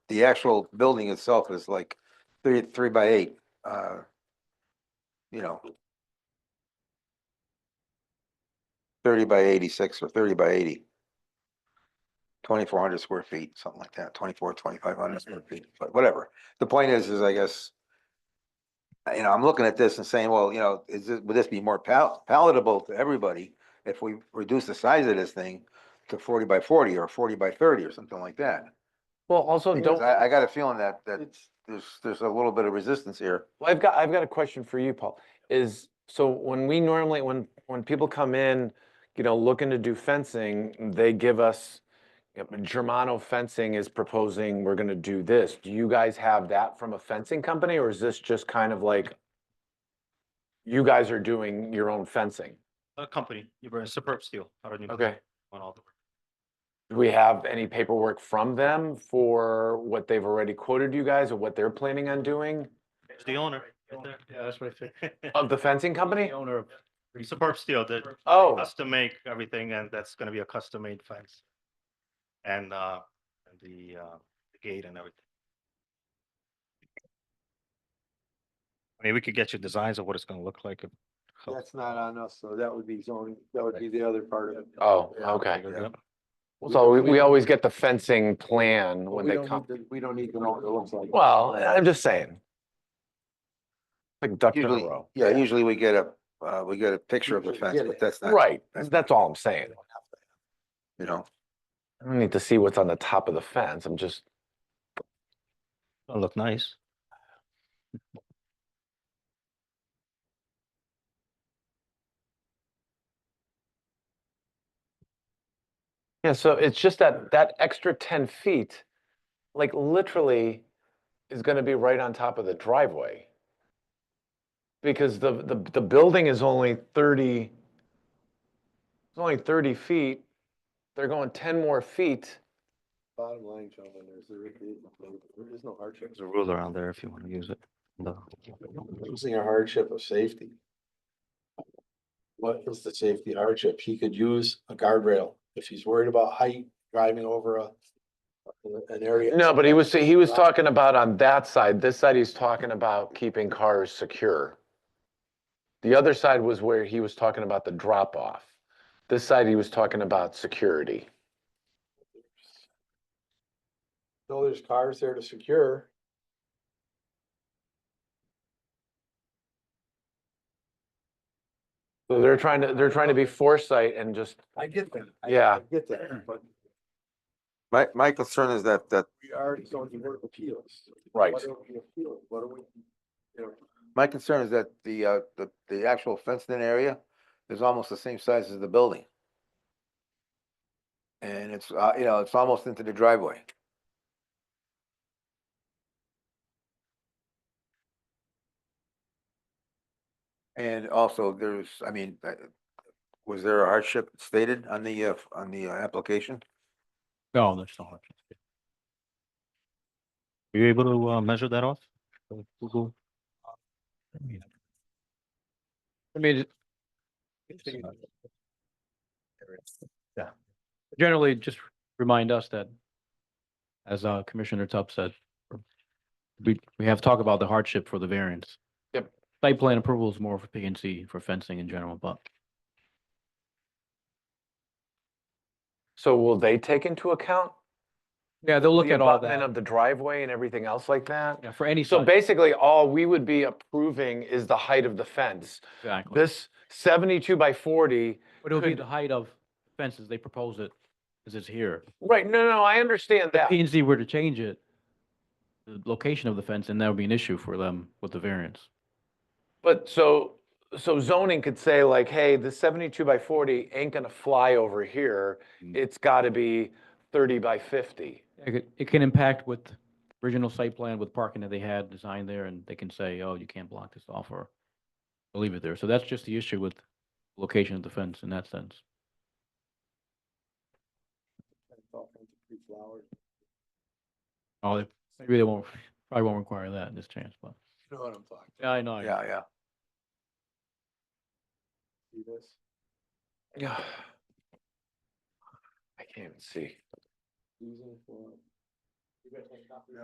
the actual building itself is like three, three by eight, uh, you know. Thirty by eighty-six or thirty by eighty. Twenty-four hundred square feet, something like that, twenty-four, twenty-five hundred square feet, but whatever. The point is, is I guess. uh, You know, I'm looking at this and saying, well, you know, is this, would this be more pal- palatable to everybody if we reduce the size of this thing to forty by forty or forty by thirty or something like that? Well, also Because don't, I, I got a feeling that, that It's- there's, there's a little bit of resistance here. Well, I've got, I've got a question for you, Paul, is, so when we normally, when, when people come in, you know, looking to do fencing, they give us, you know, Germano Fencing is proposing, we're gonna do this. Do you guys have that from a fencing company, or is this just kind of like, you guys are doing your own fencing? A company, you were a superb steel. I don't even want all the. Do we have any paperwork from them for what they've already quoted you guys, or what they're planning on doing It's the owner. right there. Yeah, that's what I think. of the fencing company? The owner of. Superb steel, they Oh. custom make everything and that's gonna be a custom made fence. And uh, and the uh, the gate and everything. I mean, we could get you designs of what it's gonna look like. if- how- not on us, so that would be zoning, that would be the other part of it. Oh, okay. Yeah. Well, So we, we always get the fencing plan when they come. We don't need to know what it looks like. Well, I'm just saying. Like duck in a Usually, row. yeah, usually we get a, uh, we get a picture of the fence, but that's not, Right, that's- that's all I'm saying. you know, I don't need to see what's on the top of the fence, I'm just, It'll look nice. yeah, so it's just that, that extra ten feet, like literally is gonna be right on top of the driveway. Because the, the, the building is only thirty, it's only thirty feet, they're going ten more feet. Bottom line, gentlemen, there's, there is no hardship. There's a ruler on there if you wanna use it. No. Using a hardship of safety. what is the safety hardship? He could use a guardrail if he's worried about height driving over a an area. No, but he was, he was talking about on that side, this side he's talking about keeping cars secure. The other side was where he was talking about the drop off. This side he was talking about security. So there's cars there to secure. So they're trying to, they're trying to be foresight and just, I get that. I- Yeah. I Get that, but My, my concern is that, that, we are zoning board of appeals. Right. What are we appealing? What are we? you know, my concern is that the, uh, the, the actual fenced-in area is almost the same size as the building. And it's, uh, you know, it's almost into the driveway. And also, there's, I mean, uh, was there a hardship stated on the, uh, on the uh, application? No, there's no hardship. Were you able to uh, measure that off? Uh, Google? I mean. Yeah. Generally, just remind us that, as uh, Commissioner Tupp said, we, we have talk about the hardship for the variance. Yep. Site plan approval is more for P and C for fencing in general, but so will they take into account? yeah, they'll look the at all abutment that. Of the driveway and everything else like that? Yeah, for any um, So site, basically, all we would be approving is the height of the fence. exactly. This seventy-two by forty But it'll be could- the height of fences, they propose it, because it's here. Right, no, no, I understand If that. P and Z were to change it, the location of the fence, and that would be an issue for them with the variance. But so, so zoning could say like, hey, the seventy-two by forty ain't gonna fly over here. Mm. It's gotta be thirty by fifty. It could- it can impact with original site plan with parking that they had designed there and they can say, oh, you can't block this off or leave it there. So that's just the issue with location of the fence in that sense. it's all kinds of pre-flowered. Oh, they- maybe they won't, probably won't require that in this chance, but. You know what I'm talking, Yeah, I know. I know. Yeah, yeah. see this? Yeah. I can't even see. Using for. You guys have a copy of that?